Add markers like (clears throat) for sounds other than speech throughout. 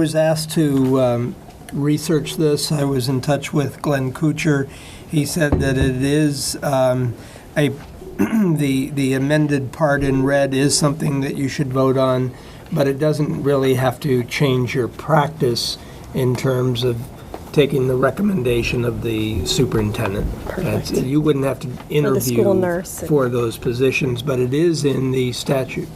was asked to um, research this. I was in touch with Glenn Kuchar. He said that it is um, a, (clears throat) the the amended part in red is something that you should vote on, but it doesn't really have to change your practice in terms of taking the recommendation of the superintendent. That's- Perfect. You wouldn't have to interview school nurse. for those positions, but it is in the statute.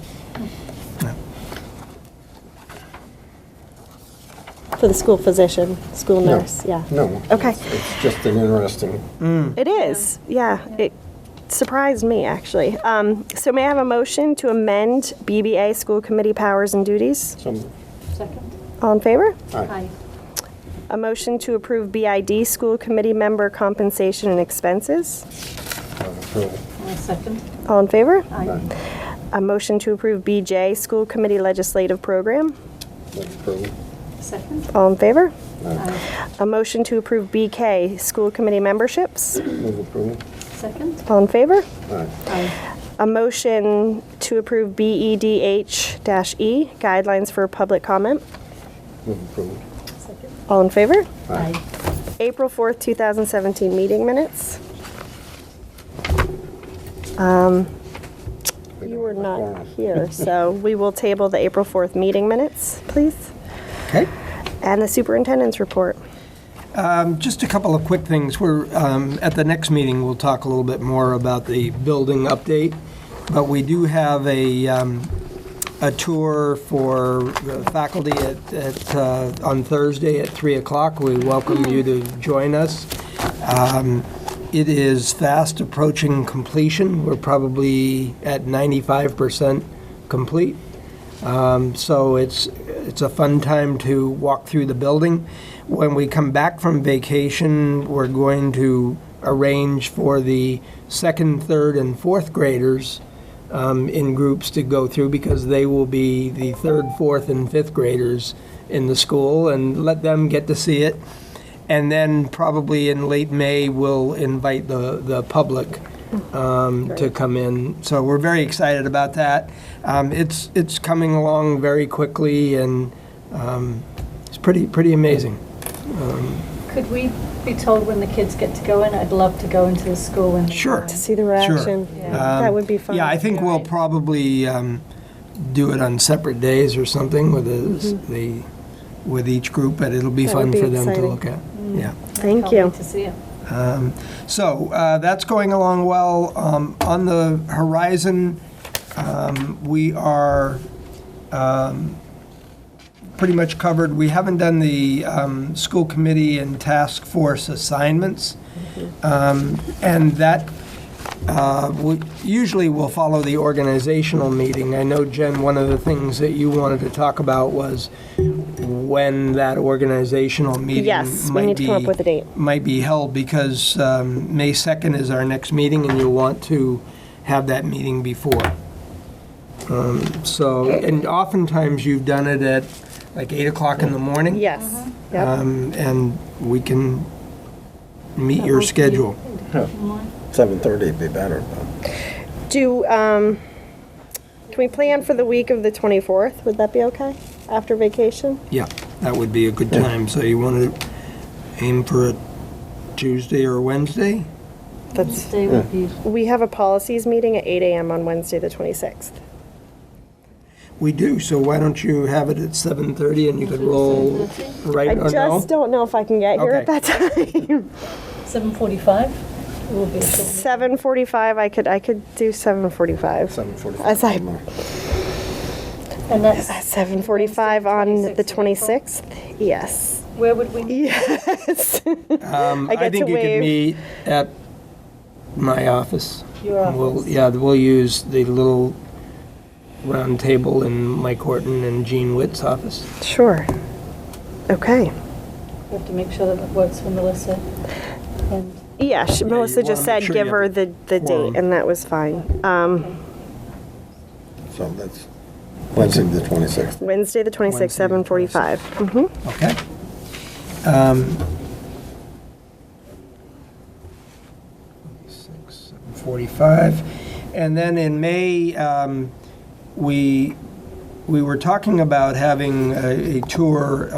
For the school physician, school nurse, yeah. No. Okay. It's just an interesting, It is, yeah. It surprised me, actually. Um, So may I have a motion to amend BBA School Committee Powers and Duties? some, Second? All in favor? aye, A motion to approve BID School Committee Member Compensation and Expenses? not approval. Aye. Second? All in favor? Aye. A motion to approve BJ School Committee Legislative Program? Not approval. Second? All in favor? Aye. A motion to approve BK School Committee Memberships? Move approval. Second? All in favor? Aye. Aye. A motion to approve E BEDH-E, E, guidelines for public comment. Move approval. Second? All in favor? Aye. April 4th, 2017 meeting minutes. Um, You were not here, so we will table the April 4th meeting minutes, please, Okay. and the superintendent's report. Um, Just a couple of quick things. We're, um, at the next meeting, we'll talk a little bit more about the building update, but we do have a, um, a tour for the faculty at, at, uh, on Thursday at 3 o'clock. We welcome you to join us. Um, It is fast approaching completion. We're probably at 95% complete. Um, So it's, it's a fun time to walk through the building. When we come back from vacation, we're going to arrange for the second, third, and fourth graders um, in groups to go through because they will be the third, fourth, and fifth graders in the school and let them get to see it. And then probably in late May, we'll invite the, the public um, to come in. So we're very excited about that. Um, It's, it's coming along very quickly and um, it's pretty, pretty amazing. Could we be told when the kids get to go in? I'd love to go into the school and. Sure. To see the Sure. Um, reaction. That would be fun. Yeah, I think we'll probably um, do it on separate days or something with the- the, with each group, but it'll be Mm-hmm. That would fun be for them to exciting. Mm. look at. Yeah. Thank Can't you. wait to see it. Um, So uh, that's going along well. Um, On the horizon, um, we are um, pretty much covered. We haven't done the um, school committee and task force assignments. Um, And that, uh, we- usually will follow the organizational meeting. I know, Jen, one of the things that you wanted to talk about was when that organizational meeting might be Yes, we need to come up with a date. might be held because um, May 2nd is our next meeting and you'll want to have that meeting before. Um, So, and oftentimes you've done it at like 8 o'clock in the morning. Yes. Yep. Um, And we can meet your schedule. Seven thirty would be better, but Do, um, can we plan for the week of the 24th? Would that be okay? After vacation? Yeah, that would be a good time. So you want to aim for a Tuesday or Wednesday? That's, Today would be, we have a policies meeting at 8 AM on Wednesday, the 26th. We do, so why don't you have it at 7:30 and you could roll right I or no? just don't know if I can get here at Okay. that (laughs) time. 7:45? It will be a short meeting. 7:45, I could, I could do 7:45. seven As I- forty-five. And that's, 7:45 on the 26th 26th? Yes, where would we? yes. (laughs) Um, I I get think to you could wave. meet at my office. Your We'll, office? yeah, we'll use the little round table in Mike Horton and Gene Witt's office. Sure. Okay. We have to make sure that it works for Melissa. And Yeah, she- you Melissa wanna just make said sure you give have her the the, the quorum. date, and that was fine. Um, So that's Wednesday, the twenty-sixth. Wednesday, the 26th, Wednesday, the 7:45. Mhm. Okay. Um, six, seven, Forty-five, and then in May, um, we we were talking about having a, a tour